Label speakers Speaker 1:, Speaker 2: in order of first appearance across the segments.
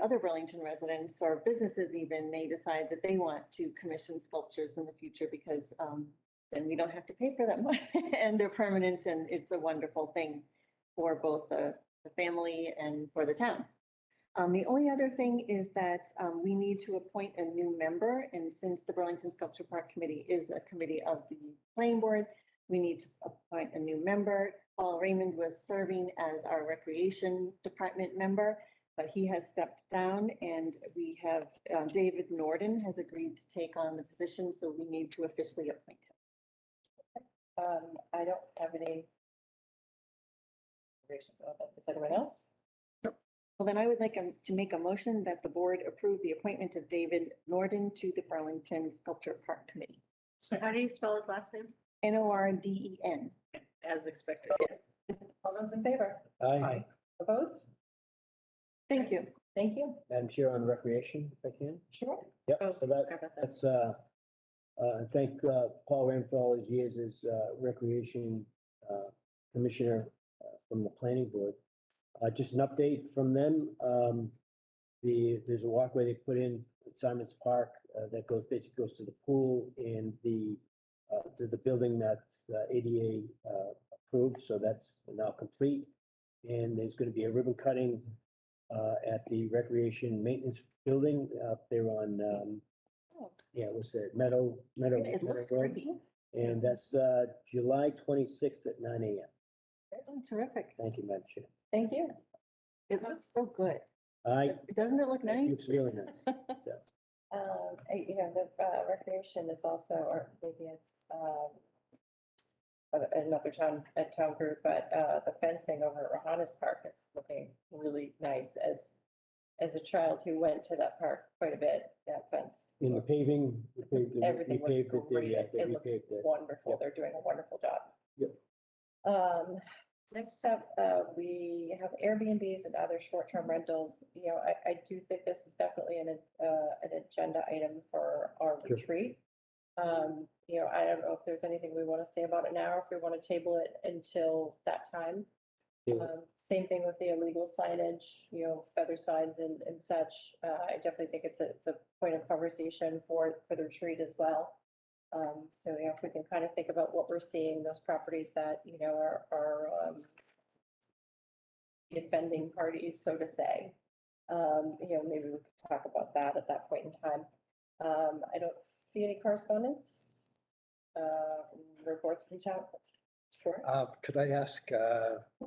Speaker 1: other Burlington residents or businesses even may decide that they want to commission sculptures in the future because um, then we don't have to pay for them and they're permanent and it's a wonderful thing for both the, the family and for the town. Um, the only other thing is that, um, we need to appoint a new member, and since the Burlington Sculpture Park Committee is a committee of the planning board, we need to appoint a new member. Paul Raymond was serving as our recreation department member, but he has stepped down, and we have, um, David Norden has agreed to take on the position, so we need to officially appoint him.
Speaker 2: Um, I don't have any. reservations about that. Is anyone else?
Speaker 1: Well, then I would like um, to make a motion that the board approve the appointment of David Norden to the Burlington Sculpture Park Committee.
Speaker 3: How do you spell his last name?
Speaker 1: N O R D E N.
Speaker 3: As expected, yes.
Speaker 2: All those in favor?
Speaker 4: Aye.
Speaker 2: Opposed?
Speaker 1: Thank you.
Speaker 2: Thank you.
Speaker 4: Madam Chair on recreation, if I can.
Speaker 2: Sure.
Speaker 4: Yep,
Speaker 3: Oh,
Speaker 4: so that,
Speaker 3: forgot about that.
Speaker 4: that's, uh, uh, and thank, uh, Paul Ram for all his years as, uh, recreation, uh, commissioner uh, from the planning board. Uh, just an update from them, um, the, there's a walkway they put in at Simon's Park, uh, that goes, basically goes to the pool and the, uh, to the building that's uh, ADA, uh, approved, so that's now complete. And there's gonna be a ribbon cutting, uh, at the recreation maintenance building up there on, um,
Speaker 1: Oh.
Speaker 4: yeah, what's that, Meadow, Meadow?
Speaker 1: It
Speaker 4: Meadow
Speaker 1: looks
Speaker 4: Road?
Speaker 1: pretty.
Speaker 4: And that's, uh, July twenty-sixth at nine AM.
Speaker 1: Terrific.
Speaker 4: Thank you, Madam Chair.
Speaker 2: Thank you.
Speaker 1: It looks so good.
Speaker 4: I,
Speaker 1: Doesn't it look nice?
Speaker 4: looks really nice. Yeah.
Speaker 2: Um, eh, you know, the uh, recreation is also, or maybe it's, um, a- another town, a town group, but, uh, the fencing over at Rohannes Park is looking really nice as, as a child who went to that park quite a bit, that fence.
Speaker 4: In the paving, we paved it, we
Speaker 2: Everything
Speaker 4: paved
Speaker 2: looks
Speaker 4: it,
Speaker 2: great.
Speaker 4: yeah,
Speaker 2: It
Speaker 4: they
Speaker 2: it looks
Speaker 4: repaved it.
Speaker 2: wonderful.
Speaker 4: Yep.
Speaker 2: They're doing a wonderful job.
Speaker 4: Yep.
Speaker 2: Um, next up, uh, we have Airbnbs and other short-term rentals. You know, I, I do think this is definitely an, uh, an agenda item for our
Speaker 4: Sure.
Speaker 2: retreat. Um, you know, I don't know if there's anything we want to say about it now, or if we want to table it until that time.
Speaker 4: Yeah.
Speaker 2: Um, same thing with the illegal signage, you know, feather signs and, and such. Uh, I definitely think it's a, it's a point of conversation for, for the retreat as well. Um, so you know, if we can kind of think about what we're seeing, those properties that, you know, are, are, um, offending parties, so to say. Um, you know, maybe we could talk about that at that point in time. Um, I don't see any correspondence, uh, reports from town. Sure.
Speaker 5: Uh, Could I ask, uh,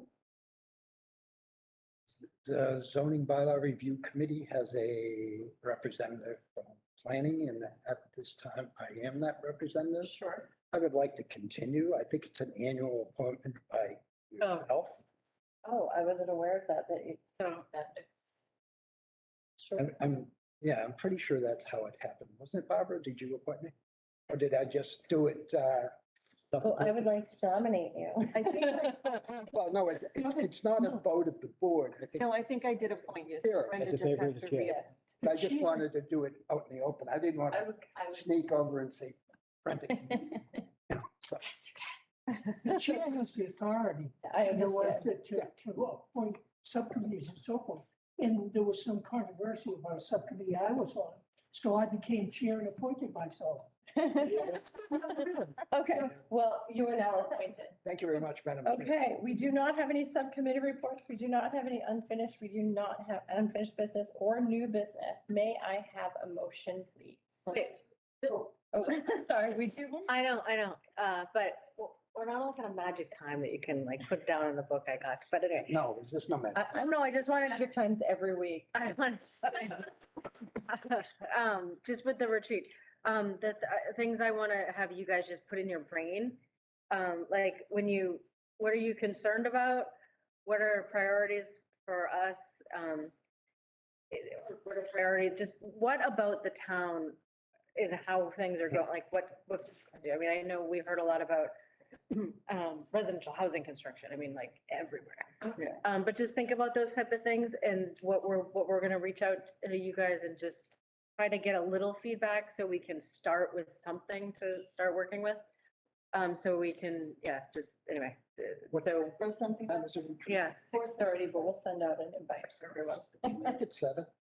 Speaker 5: the zoning bylaw review committee has a representative from planning and at this time I am that representative.
Speaker 2: Sure.
Speaker 5: I would like to continue. I think it's an annual appointment by
Speaker 2: Oh.
Speaker 5: yourself.
Speaker 2: Oh, I wasn't aware of that, that it,
Speaker 3: So
Speaker 2: that it's. Sure.
Speaker 5: I'm- I'm, yeah, I'm pretty sure that's how it happened. Wasn't it Barbara? Did you appoint me? Or did I just do it? uh,
Speaker 4: Stuff-
Speaker 2: Well, I would like to nominate you.
Speaker 1: I think, I-
Speaker 5: Well, no, it's, it's not a vote of the board. I think.
Speaker 1: no, I think I did appoint you.
Speaker 5: Here.
Speaker 1: Brenda
Speaker 4: At the
Speaker 1: just
Speaker 4: favor
Speaker 1: has
Speaker 4: of the
Speaker 1: to
Speaker 4: chair.
Speaker 1: reappoint.
Speaker 5: I just wanted to do it out in the open. I didn't want to
Speaker 2: I
Speaker 5: sneak over and say, Brenda, can you
Speaker 2: Yes,
Speaker 6: The chair has the authority
Speaker 2: I
Speaker 6: and the
Speaker 2: understand.
Speaker 6: to, to- to appoint subcommittees and so forth. And there was some controversy about a subcommittee I was on, so I became chair and appointed myself.
Speaker 2: Okay, well, you are now appointed.
Speaker 5: Thank you very much, Madam. Chair.
Speaker 2: Okay, we do not have any subcommittee reports. We do not have any unfinished, we do not have unfinished business or new business. May I have a motion, please?
Speaker 3: Okay. Bill,
Speaker 2: Oh, sorry, we do.
Speaker 3: I know, I know, uh, but w- we're not all kind of magic time that you can like put down in the book I got, but anyway.
Speaker 5: No, it's just no matter.
Speaker 2: I,
Speaker 3: I don't know, I just wanted to
Speaker 2: hundred times every week.
Speaker 3: I want to say, um, just with the retreat, um, the th- uh, things I want to have you guys just put in your brain. Um, like when you, what are you concerned about? What are priorities for us? Um, i- what are priority, just what about the town and how things are going? Like what, what, I mean, I know we heard a lot about um, residential housing construction. I mean, like everywhere. Um, but just think about those type of things and what we're, what we're gonna reach out to you guys and just try to get a little feedback so we can start with something to start working with. Um, so we can, yeah, just, anyway, uh,
Speaker 5: What-
Speaker 3: so,
Speaker 1: Throw something.
Speaker 5: That was a retreat.
Speaker 3: yes.
Speaker 2: Six thirty, but we'll send out an invite.
Speaker 5: Make it seven.